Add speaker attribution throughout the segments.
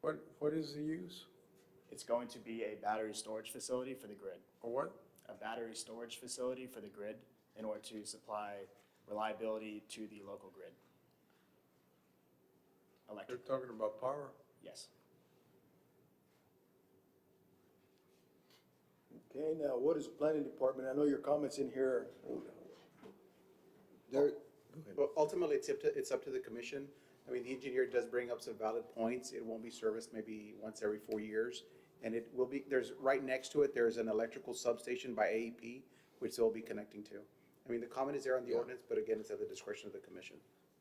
Speaker 1: What, what is the use?
Speaker 2: It's going to be a battery storage facility for the grid,
Speaker 1: Or what?
Speaker 2: a battery storage facility for the grid in order to supply reliability to the local grid.
Speaker 1: They're
Speaker 2: Electric,
Speaker 1: talking about power.
Speaker 2: yes.
Speaker 3: Okay, now, what is the planning department? I know your comments in here. There,
Speaker 4: Well, ultimately, it's up to, it's up to the commission. I mean, the engineer does bring up some valid points. It won't be serviced maybe once every four years. And it will be, there's, right next to it, there's an electrical substation by AEP, which they'll be connecting to. I mean, the comment is there on the ordinance, but again, it's at the discretion of the commission.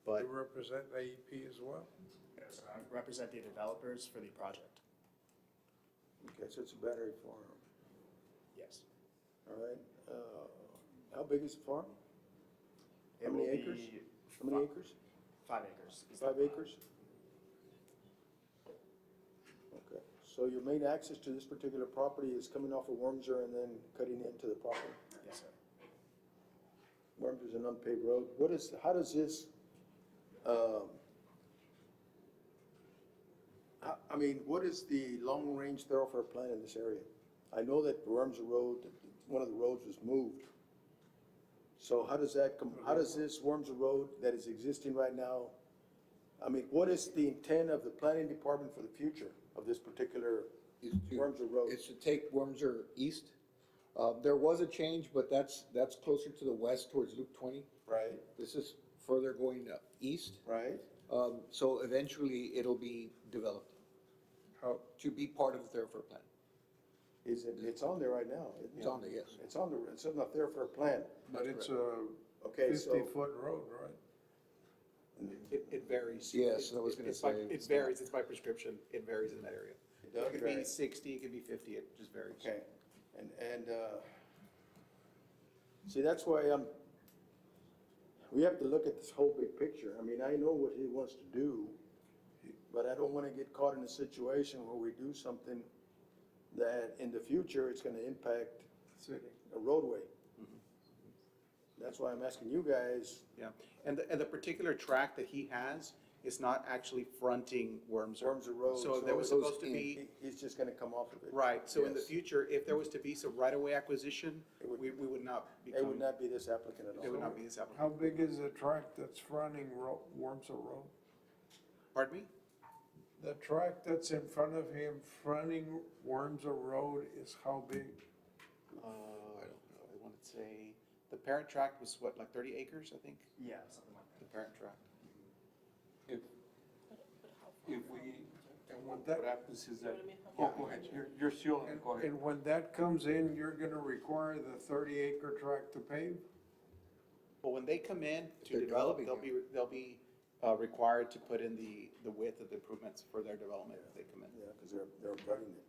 Speaker 1: They
Speaker 4: But
Speaker 1: represent AEP as well.
Speaker 2: I Uh, Represent the developers for the project,
Speaker 3: okay, so it's a battery farm,
Speaker 2: yes.
Speaker 3: all right? Uh, How big is the farm?
Speaker 2: It
Speaker 3: How many
Speaker 2: will
Speaker 3: acres?
Speaker 2: be
Speaker 3: How many
Speaker 2: fi-
Speaker 3: acres?
Speaker 2: Five acres. is the
Speaker 3: Five
Speaker 2: plan.
Speaker 3: acres? Okay, so your main access to this particular property is coming off of Wormser and then cutting into the property?
Speaker 2: Yes, sir.
Speaker 3: Worms is an unpaved road. What is, how does this, um, I, I mean, what is the long-range thoroughfare plan in this area? I know that Worms Road, one of the roads was moved. So how does that, com- how does this Worms Road that is existing right now, I mean, what is the intent of the planning department for the future of this particular
Speaker 5: is to.
Speaker 3: Wormser Road.
Speaker 5: Is to take Wormser east. Uh, there was a change, but that's, that's closer to the west towards Loop twenty.
Speaker 3: Right.
Speaker 5: This is further going uh, east.
Speaker 3: Right?
Speaker 5: Um, so eventually it'll be developed
Speaker 1: How,
Speaker 5: to be part of the thoroughfare plan.
Speaker 3: Is it, it's on there right now?
Speaker 5: It's on there, yes.
Speaker 3: It's on the, it's on the thoroughfare plan.
Speaker 1: but it's a
Speaker 3: Okay, so.
Speaker 1: fifty-foot road, right?
Speaker 4: it, it varies.
Speaker 5: Yes, I was gonna
Speaker 4: It's by-
Speaker 5: say,
Speaker 4: It
Speaker 5: it's
Speaker 4: varies, it's by prescription. It varies in that area.
Speaker 3: does
Speaker 4: It could be
Speaker 3: vary.
Speaker 4: sixty, it could be fifty, it just varies.
Speaker 3: Okay, and, and, uh, see, that's why I'm, we have to look at this whole big picture. I mean, I know what he wants to do, but I don't wanna get caught in a situation where we do something that in the future, it's gonna impact a roadway.
Speaker 5: Mm-hmm.
Speaker 3: That's why I'm asking you guys,
Speaker 4: Yeah, and the, and the particular track that he has is not actually fronting Worms.
Speaker 3: Worms or roads.
Speaker 4: So there was
Speaker 3: so
Speaker 4: supposed to be,
Speaker 3: he- He's just gonna come off of it.
Speaker 4: right, so in the
Speaker 3: Yes.
Speaker 4: future, if there was to be some right-of-way acquisition, we, we would not be.
Speaker 3: It would
Speaker 4: coming-
Speaker 3: not be this applicant at all.
Speaker 4: It would not be this
Speaker 1: How
Speaker 4: applicant.
Speaker 1: big is the tract that's fronting Ro- Wormser Road?
Speaker 4: Pardon me?
Speaker 1: The tract that's in front of him fronting Wormser Road is how big?
Speaker 4: Uh, I don't know, I want to say, the parent tract was what, like thirty acres, I think,
Speaker 2: Yeah, something like
Speaker 4: the parent tract?
Speaker 6: If, if we, and what,
Speaker 1: That-
Speaker 6: what happens is that, oh, go ahead, you're, you're still,
Speaker 1: And-
Speaker 6: go ahead.
Speaker 1: And when that comes in, you're gonna require the thirty-acre tract to pave?
Speaker 4: But when they come in to
Speaker 5: they're
Speaker 4: develop,
Speaker 5: developing
Speaker 4: they'll be, they'll be, uh, required to put in the, the width of the improvements for their development if they come in.
Speaker 3: Yeah, because they're, they're abutting it.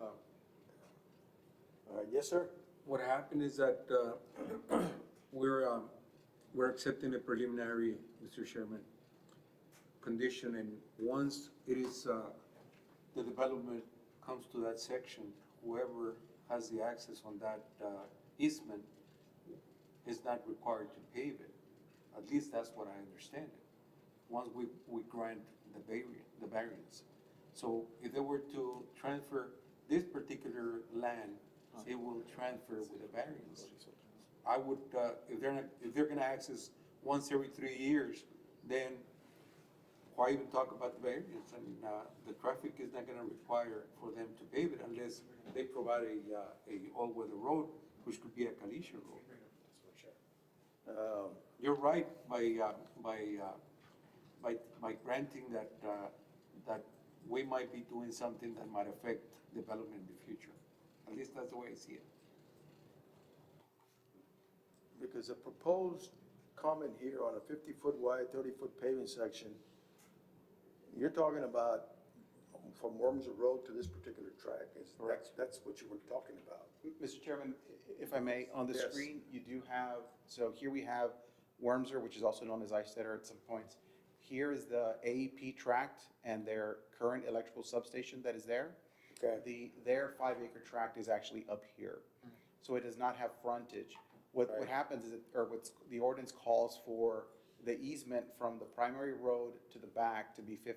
Speaker 4: Oh.
Speaker 3: Yeah. All right, yes, sir?
Speaker 6: What happened is that, uh, we're, um, we're accepting a preliminary, Mr. Chairman, condition, and once it is, uh, the development comes to that section, whoever has the access on that, uh, easement is not required to pave it. At least that's what I understand it, once we, we grant the variance, the variance. So if they were to transfer this particular land, it will transfer with a variance. I would, uh, if they're, not- if they're gonna access once every three years, then why even talk about the variance? I mean, uh, the traffic is not gonna require for them to pave it unless they provide a, uh, a all-weather road, which could be a caliche road.
Speaker 3: Um,
Speaker 6: You're right by, uh, by, uh, by, by granting that, uh, that we might be doing something that might affect development in the future. At least that's the way I see it.
Speaker 3: Because the proposed comment here on a fifty-foot wide, thirty-foot paving section, you're talking about from Wormsor Road to this particular track, is, that's, that's what you were talking about.
Speaker 4: Mr. Chairman, i- if I may, on the
Speaker 3: Yes.
Speaker 4: screen, you do have, so here we have Wormser, which is also known as Eisteddar at some points. Here is the AEP tract and their current electrical substation that is there.
Speaker 3: Okay.
Speaker 4: The, their five acre tract is actually up here, so it does not have frontage. What, what
Speaker 3: Right.
Speaker 4: happens is, it- or what's, the ordinance calls for the easement from the primary road to the back to be fifty